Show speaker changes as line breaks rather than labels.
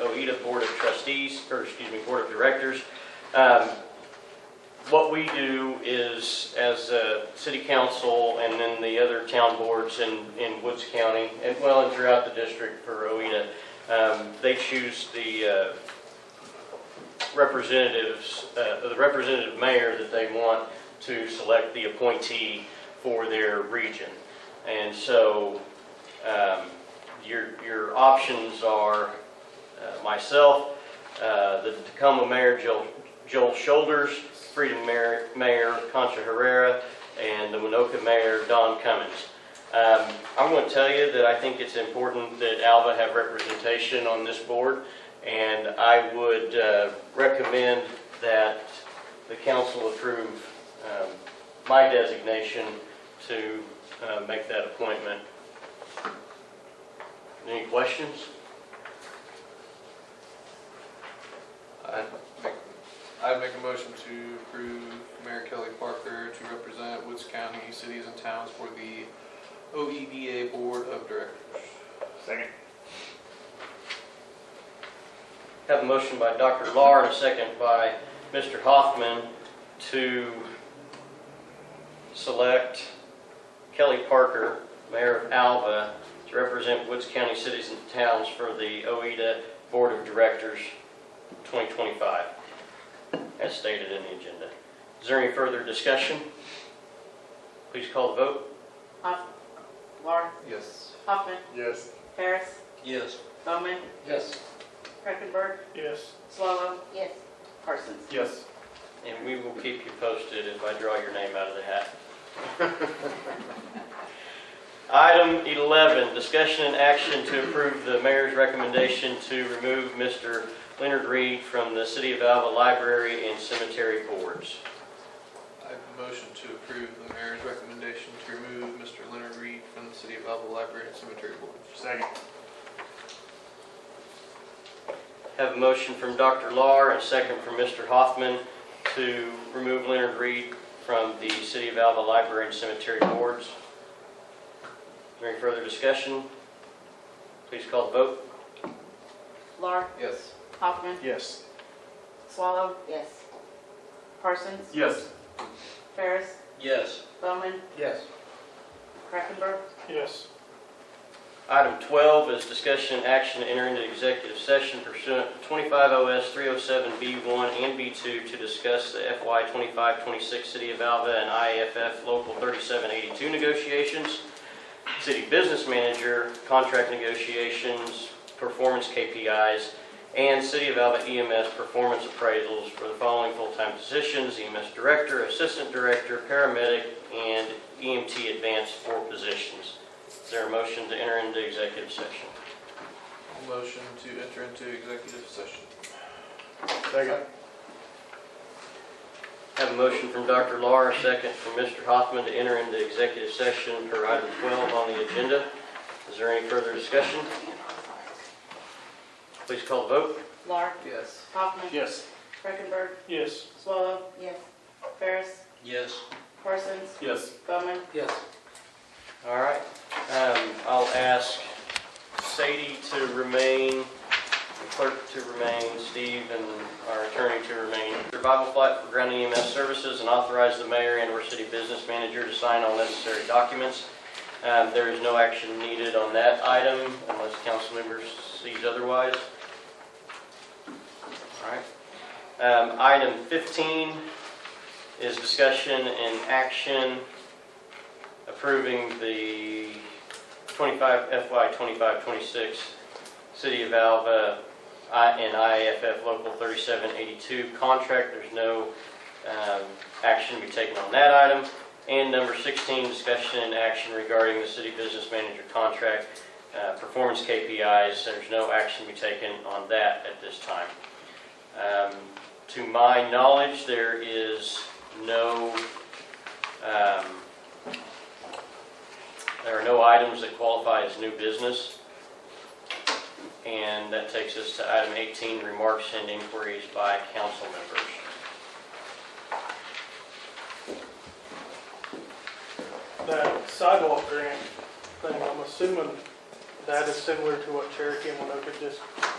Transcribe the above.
OEDA Board of Trustees, or excuse me, Board of Directors. Um, What we do is, as a city council and then the other town boards in, in Woods County, and well, and throughout the district for OEDA, um, they choose the uh, representatives, uh, the representative mayor that they want to select the appointee for their region. And so um, your, your options are uh, myself, uh, the Tacoma Mayor Joel- Joel Shoulders, Freedom Mayor Mayor Concha Herrera, and the Winoka Mayor Don Cummins. Um, I'm going to tell you that I think it's important that Alva have representation on this board, and I would uh, recommend that the council approve um, my designation to uh, make that appointment. Any questions?
I'd make, I'd make a motion to approve Mayor Kelly Parker to represent Woods County cities and towns for the OEDA Board of Directors.
Second.
Have a motion by Dr. Lahr and a second by Mr. Hoffman to select Kelly Parker, Mayor of Alva, to represent Woods County cities and towns for the OEDA Board of Directors 2025, as stated in the agenda. Is there any further discussion? Please call the vote.
Hoff, Laura,
Yes.
Hoffman,
Yes.
Harris,
Yes.
Bowman,
Yes.
Krickenberg,
Yes.
Swallow,
Yes.
Parsons.
Yes.
And we will keep you posted if I draw your name out of the hat. Item 11, discussion and action to approve the mayor's recommendation to remove Mr. Leonard Reed from the City of Alva Library and Cemetery Boards.
I'd motion to approve the mayor's recommendation to remove Mr. Leonard Reed from the City of Alva Library and Cemetery Board.
Second.
Have a motion from Dr. Lahr and a second from Mr. Hoffman to remove Leonard Reed from the City of Alva Library and Cemetery Boards. Is there any further discussion? Please call the vote.
Laura,
Yes.
Hoffman,
Yes.
Swallow,
Yes.
Parsons,
Yes.
Harris,
Yes.
Bowman,
Yes.
Krickenberg,
Yes.
Item 12 is discussion and action to enter into executive session pursuant to 25 OS 307B1 and B2 to discuss the FY 25-26 City of Alva and IAFF Local 3782 negotiations, city business manager contract negotiations, performance KPIs, and City of Alva EMS performance appraisals for the following full-time positions, EMS director, assistant director, paramedic, and EMT advanced four positions. Is there a motion to enter into executive session?
Motion to enter into executive session.
Second.
Have a motion from Dr. Lahr, a second from Mr. Hoffman to enter into executive session per item 12 on the agenda. Is there any further discussion? Please call the vote.
Laura,
Yes.
Hoffman,
Yes.
Krickenberg,
Yes.
Swallow,
Yes.
Harris,
Yes.
Parsons,
Yes.
Bowman,
Yes.
All right. Um, I'll ask Sadie to remain, the clerk to remain, Steve and our attorney to remain. Survival flight for ground EMS services and authorize the mayor and or city business manager to sign all necessary documents. Um, there is no action needed on that item unless council members sees otherwise. All right. Um, item fifteen is discussion and action approving the 25, FY 25-26 City of Alva I- and IAFF Local 3782 contract. There's no um, action to be taken on that item. And number 16, discussion and action regarding the city business manager contract, uh, performance KPIs. There's no action to be taken on that at this time. Um, To my knowledge, there is no um, there are no items that qualify as new business. And that takes us to item 18, remarks and inquiries by council members.
that sidewalk grant thing, I'm assuming that is similar to what Cherokee and Winoka just